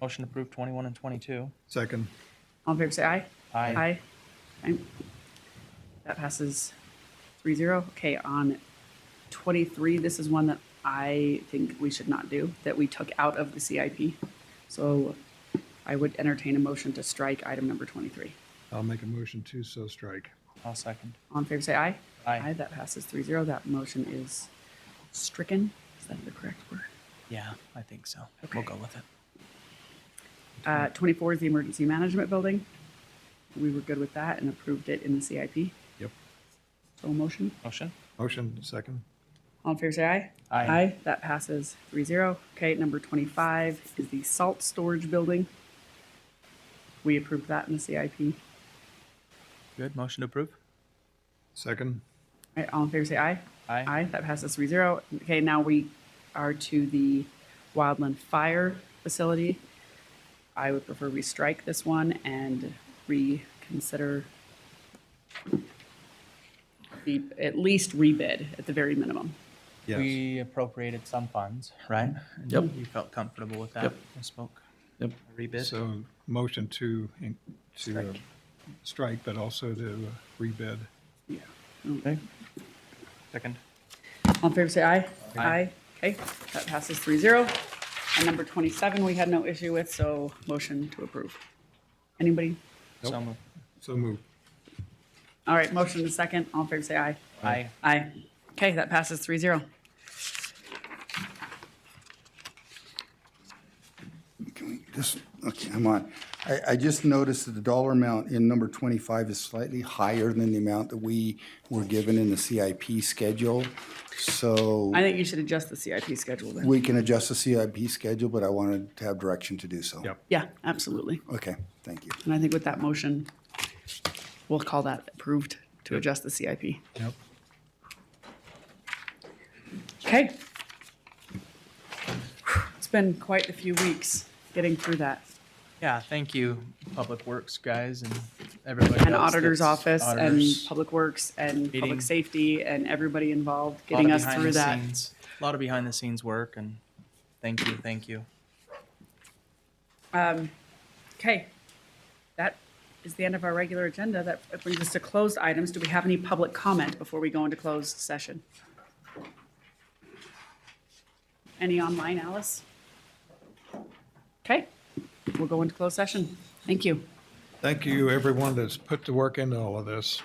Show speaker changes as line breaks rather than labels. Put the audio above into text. Motion to approve 21 and 22.
Second.
All in favor, say aye.
Aye.
Aye. Aye. That passes three zero. Okay, on twenty-three, this is one that I think we should not do, that we took out of the CIP. So I would entertain a motion to strike item number twenty-three.
I'll make a motion to so strike.
I'll second.
All in favor, say aye.
Aye.
That passes three zero. That motion is stricken. Is that the correct word?
Yeah, I think so. We'll
Okay.
go with it.
Uh, twenty-four is the Emergency Management Building. We were good with that and approved it in the CIP.
Yep.
So a motion?
Motion?
Motion, second.
All in favor, say aye.
Aye.
That passes three zero. Okay, number twenty-five is the salt storage building. We approved that in the CIP. All
Good. Motion to approve?
Second.
right, all in favor, say aye.
Aye.
Aye, that passes three zero. Okay, now we are to the Wildland Fire Facility. I would prefer we strike this one and reconsider the, at least rebid at the very minimum.
Yes.
We appropriated some funds, right? And
Yep.
You felt comfortable with that?
Yep.
I spoke.
Yep.
Rebid?
So motion to, in- to uh, strike, but also to uh, rebid.
Yeah.
Okay. Second.
All in favor, say aye.
Aye.
Okay, that passes three zero. And number twenty-seven, we had no issue with, so motion to approve. Anybody?
So
Nope.
moved.
So move.
All right, motion to second. All in favor, say aye.
Aye.
Aye. Okay, that passes three zero.
Can we just, okay, I'm on. I, I just noticed that the dollar amount in number twenty-five is slightly higher than the amount that we were given in the CIP schedule. So
I think you should adjust the CIP schedule then.
we can adjust the CIP schedule, but I wanted to have direction to do so.
Yep.
Yeah, absolutely.
Okay, thank you.
And I think with that motion, we'll call that approved to adjust the CIP.
Yep.
Okay. It's been quite a few weeks getting through that.
Yeah, thank you, Public Works guys and everybody
and
else
auditor's
that's-
office and
auditors.
public works and
Meeting.
public safety and everybody involved
Lot of
getting us
behind
through
the
that.
scenes- A lot of behind the scenes work and thank you, thank you.
Okay. That is the end of our regular agenda. That brings us to closed items. Do we have any public comment before we go into closed session? Any online, Alice? Okay, we'll go into closed session. Thank you.
Thank you, everyone that's put the work into all of this.